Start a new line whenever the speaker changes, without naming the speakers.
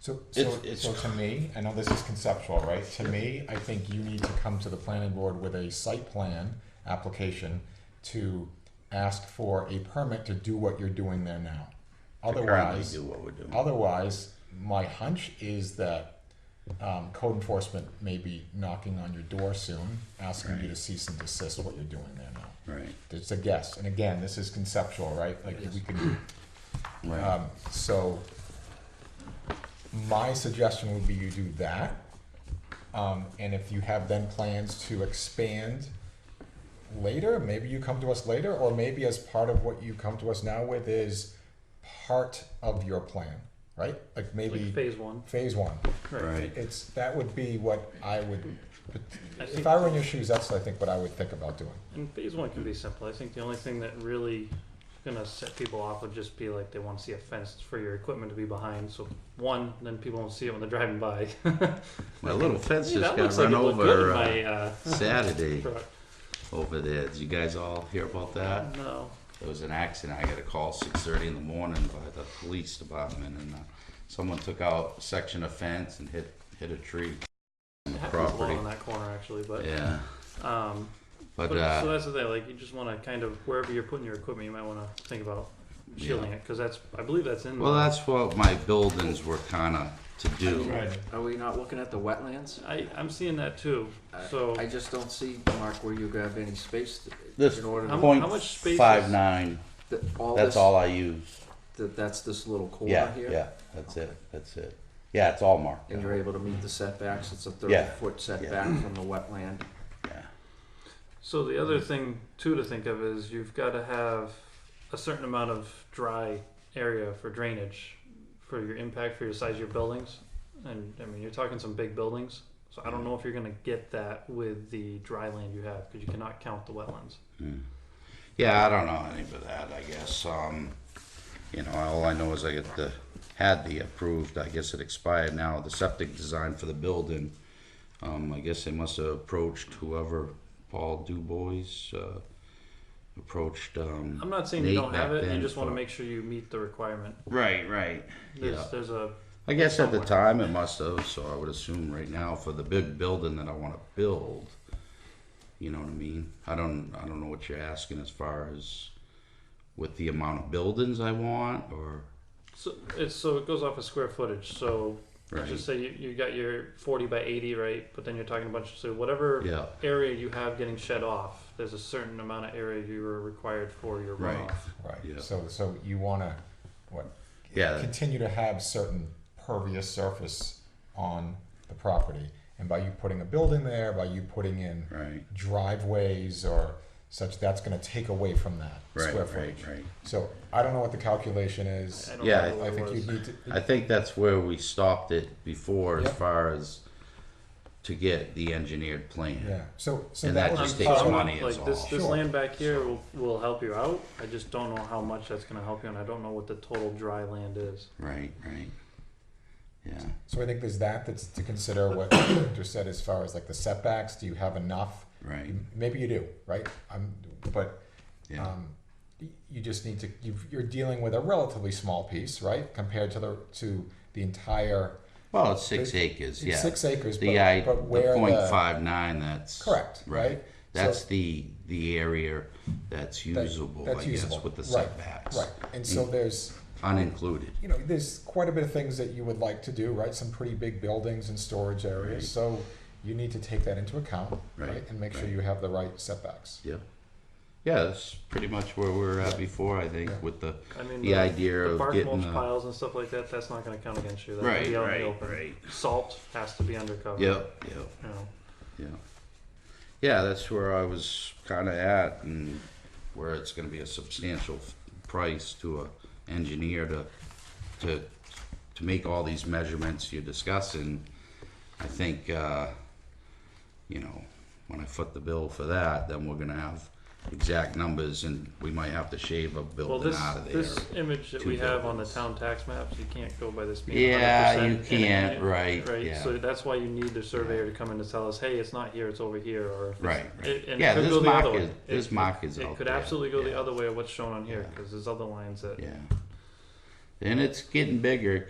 So,
It's-
so,
it's
so to me, I know this is conceptual, right? To me, I think you need to come to the planning board with a site plan application to ask for a permit to do what you're doing there now.
to currently
Otherwise,
Do what we're doing.
otherwise, my hunch is that, um, code enforcement may be knocking on your door soon, asking you to cease and desist what you're doing there now.
Right,
It's a guess, and again, this is conceptual, right? Like, we can,
right,
Uh,
um, so, my suggestion would be you do that. Um, and if you have then plans to expand later, maybe you come to us later, or maybe as part of what you come to us now with is part of your plan, right? Like
like
maybe
phase one.
phase one.
right.
It's, that would be what I would,
I
if
think,
I were in your shoes, that's I think what I would think about doing.
and phase one can be simple. I think the only thing that really gonna set people off would just be like they want to see a fence for your equipment to be behind. So one, then people won't see it when they're driving by.
My little fence
Hey,
just
that
got
looks like
run
it looked good
over
in
uh,
my uh,
Saturday
truck.
over there. Did you guys all hear about that?
No,
There was an accident. I got a call six thirty in the morning by the police department and uh, someone took out a section of fence and hit, hit a tree.
it happens a lot
Property.
on that corner actually, but
Yeah,
um,
but
But- so
uh,
that's the thing. Like you just want to kind of wherever you're putting your equipment, you might want to think about shielding it 'cause it because that's I believe that's in.
well,
the-
that's what my buildings were kinda to do.
Are we not looking at the wetlands?
I I'm seeing that too.
I-
So
I just don't see, Mark, where you grab any space to-
This
in order
How-
to,
point
how much space
five
is-
nine,
that all
that's
this,
all I use.
that, that's this little corner
Yeah,
here?
yeah, that's it, that's it. Yeah, it's all marked.
And you're able to meet the setbacks, it's a
Yeah.
thirty-foot setback from the wetland.
Yeah.
So the other thing too to think of is you've got to have a certain amount of dry area for drainage for your impact for your size of your buildings. And I mean you're talking some big buildings. So I don't know if you're going to get that with the dry land you have because you cannot count the wetlands.
Mm. Yeah, I don't know any of that, I guess. Um, you know, all I know is I get the, had the approved, I guess it expired now, the septic design for the building. Um, I guess they must have approached whoever, Paul Dubois, uh, approached, um.
I'm not saying you
Nate
don't have
back
it. You
then
just want to
for-
make sure you meet the requirement.
Right, right.
There's,
Yeah.
there's a
I guess at the
somewhere.
time it must have, so I would assume right now for the big building that I wanna build, you know what I mean? I don't, I don't know what you're asking as far as with the amount of buildings I want or,
so it's so it goes off of square footage. So
right?
Just say you, you got your 40 by 80, right? But then you're talking a bunch of, so whatever
Yeah,
area you have getting shed off, there's a certain amount of area you are required for your
Right.
runoff.
Yeah.
Right, so, so you wanna, what,
yeah,
continue to have certain pervious surface on the property. And by you putting a building there, by you putting in
right,
driveways or such, that's gonna take away from that
right,
square
right,
footage.
right.
So I don't know what the calculation is.
I don't
Yeah,
know what
I
it
think
was.
you'd need to,
I think that's where we stopped it before as
Yeah.
far as to get the engineered plan.
yeah, so, so
And
that
that
would
just
be
takes
part of-
money. is
like this,
all.
this
Sure.
land back here will, will help you out. I just don't know how much that's going to help you, and I don't know what the total dry land is.
Right, right. Yeah,
So I think there's that that's to consider what Victor said as far as like the setbacks, do you have enough?
right,
Maybe you do, right? I'm, but
yeah,
Um, y- you just need to. You've, you're dealing with a relatively small piece, right, compared to the to the entire
well, it's six acres,
it's
yeah.
six acres.
The,
but,
I, the
but where
point five nine, that's.
Correct, right?
That's
So-
the, the area that's usable,
that's
I guess,
usable,
with the
right,
setbacks. Mm.
right, and so there's
Unincluded,
you know there's quite a bit of things that you would like to do, right? Some pretty big buildings and storage areas,
Right.
so you need to take that into account,
Right,
and make sure
right.
you have the right setbacks.
yeah. Yeah, that's pretty much where we were at before, I think,
Yeah.
with the,
I mean,
the idea
the
of
bark
getting
mulch
the.
piles and stuff like that, that's not going to count against you. That
Right,
can be out in the
right,
open.
right.
Salt has to be undercover.
Yep, yep.
You know.
Yeah. Yeah, that's where I was kind of at and where it's going to be a substantial f- price to a engineer to, to, to make all these measurements you're discussing. I think, uh, you know, when I foot the bill for that, then we're going to have exact numbers and we might have to shave a
Well,
building
this
out of there.
this image that
two
we have on the
buildings.
town tax maps, you can't go by this being
Yeah,
100%,
you
and it-
can't, right,
Right,
yeah.
so that's why you need the surveyor to come in to tell us, hey, it's not here, it's over here, or if it's-
Right, right.
it- and it
Yeah,
could
this
go the
mark
other way.
is- this
It-
mark is
It
out
could
there,
absolutely go the
yeah.
other way of what's shown on here
Yeah.
because there's other lines that
Yeah. And it's getting bigger